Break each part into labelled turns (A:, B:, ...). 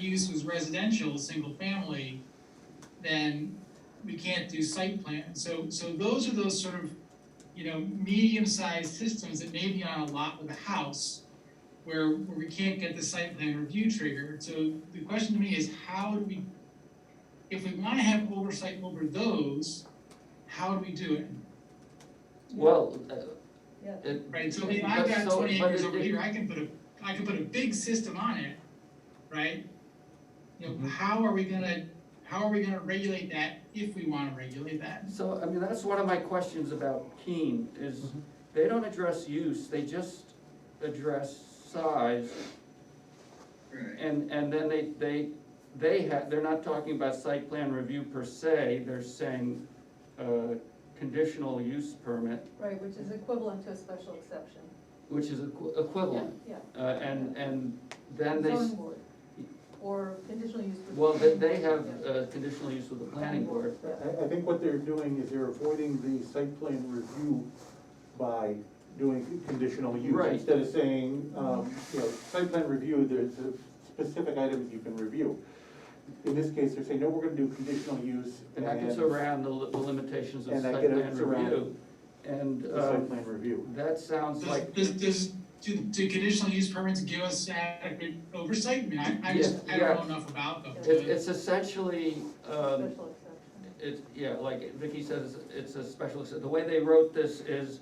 A: use was residential, single family, then we can't do site plan. So, so those are those sort of, you know, medium-sized systems that may be on a lot with a house where, where we can't get the site plan review triggered. So the question to me is how do we, if we wanna have oversight over those, how do we do it?
B: Well, uh,
C: Yeah.
B: it,
A: Right, so if I've
B: But
A: got
B: so-
A: twenty
B: but
A: acres
B: it-
A: over here, I can put a, I can put a big system on it, right? You know,
B: Mhm.
A: how are we gonna, how are we gonna regulate that if we wanna regulate that?
B: so, I mean, that's one of my questions about Keene, is they don't address use, they just address size. And, and then they, they, they have, they're not talking about site plan review per se, they're saying, uh, conditional use permit,
C: Right, which is equivalent to a special exception.
B: which is equi- equivalent.
C: Yeah,
B: Uh, and, and then they, s-
C: zoning board, or conditional use. for-
B: well, they, they have, uh, conditional use with the planning board.
D: I, I think what they're doing is they're avoiding the site plan review by doing conditional use.
B: Right.
D: Instead of saying, um, you know, site plan review, there's a specific items you can review. In this case, they're saying, no, we're gonna do conditional use
B: And
D: and.
B: that gets around the li- the limitations of
D: And that
B: site plan
D: gets around
B: review. And,
D: the
B: uh,
D: Site plan review.
B: that sounds
A: Does,
B: like,
A: does, does, do, do conditional use permits give us adequate oversight? I mean, I, I just, I don't know
B: Yeah.
A: enough about them.
B: it,
A: to-
B: it's essentially, um,
C: Special exception.
B: it's, yeah, like Vicky says, it's a special, exce- the way they wrote this is,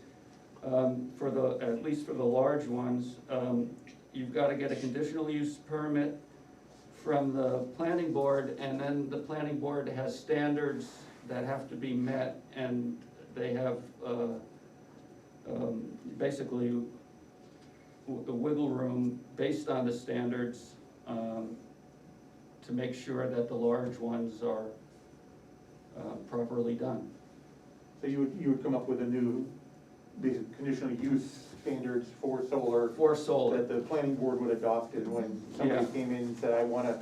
B: um, for the, at least for the large ones, um, you've gotta get a conditional use permit from the planning board, and then the planning board has standards that have to be met, and they have, uh, um, basically w- the wiggle room based on the standards, um, to make sure that the large ones are, uh, properly done.
D: So you would, you would come up with a new, these conditional use standards for solar
B: For solar,
D: that the planning board would adopt and when somebody
B: Yeah.
D: came in and said, I wanna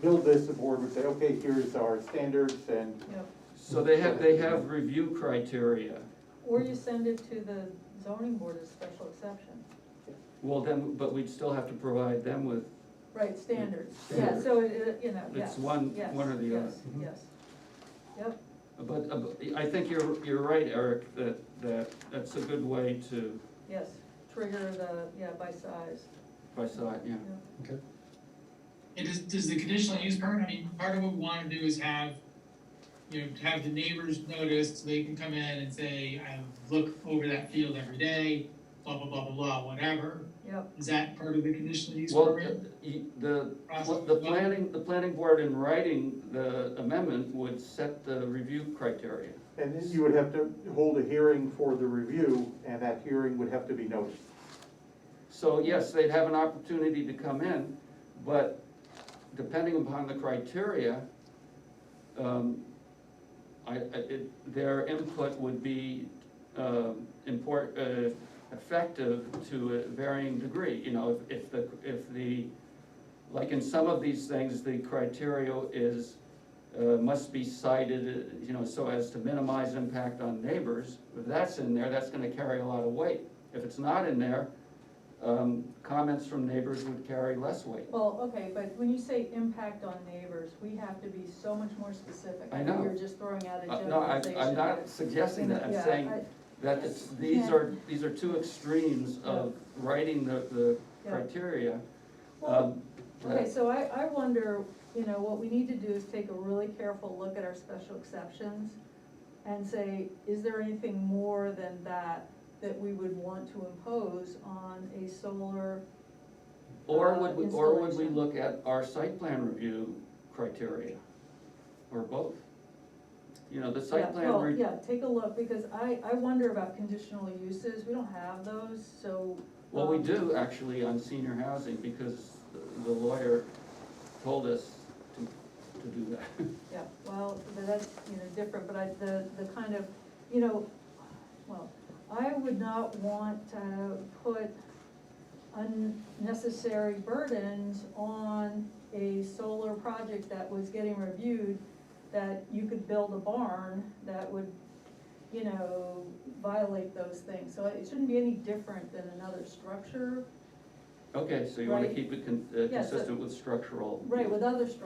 D: build this, the board would say, okay, here's our standards and
C: Yep.
B: so they have, they have review criteria.
C: Or you send it to the zoning board as special exception.
B: Well, then, but we'd still have to provide them with,
C: Right, standards, yeah, so it- it, you know,
B: It's
C: yes,
B: one-
C: yes,
B: one or the other.
C: yes, Yes, yep,
B: but, uh, but I think you're, you're right, Eric, that, that, that's a good way to,
C: yes, trigger the, yeah, by size,
B: by side, yeah.
C: yeah.
A: It is, does the conditional use permit, I mean, part of what we wanna do is have, you know, have the neighbors notice, so they can come in and say, I look over that field every day, blah, blah, blah, blah, blah, whatever.
C: Yep.
A: Is that part of the conditional use
B: Well,
A: permit?
B: uh, y- the,
A: process?
B: the planning, the planning board in writing the amendment would set the review criteria.
D: And then you would have to hold a hearing for the review, and that hearing would have to be noticed.
B: So yes, they'd have an opportunity to come in, but depending upon the criteria, um, I, I, it, their input would be, um, import, uh, effective to a varying degree, you know, if, if the, if the, like in some of these things, the criteria is, uh, must be cited, uh, you know, so as to minimize impact on neighbors, if that's in there, that's gonna carry a lot of weight. If it's not in there, um, comments from neighbors would carry less weight.
C: Well, okay, but when you say impact on neighbors, we have to be so much more specific.
B: I know.
C: You're just throwing out a
B: Uh, No, I,
C: generalization.
B: I'm not suggesting that, I'm
C: Yeah,
B: saying
C: I-
B: that it's, these are, these are two extremes of writing the, the
C: Yeah.
B: criteria.
C: Well,
B: Um,
C: Okay,
B: that-
C: so I, I wonder, you know, what we need to do is take a really careful look at our special exceptions and say, is there anything more than that that we would want to impose on a solar?
B: Or
C: uh,
B: would, we- or would we
C: installation.
B: look at our site plan review criteria, or both? You know, the
C: Yeah,
B: site plan,
C: well,
B: re-
C: Yeah, take a look, because I, I wonder about conditional uses, we don't have those, so.
B: well, we
C: um,
B: do actually on senior housing, because the lawyer told us to, to do that.
C: Yeah, well, but that's, you know, different, but I, the, the kind of, you know, well, I would not want to put unnecessary burdens on a solar project that was getting reviewed, that you could build a barn that would, you know, violate those things. So it shouldn't be any different than another structure.
B: Okay, so you wanna
C: Right.
B: keep it con- uh,
C: Yeah, so-
B: consistent with structural.
C: Right, with other structures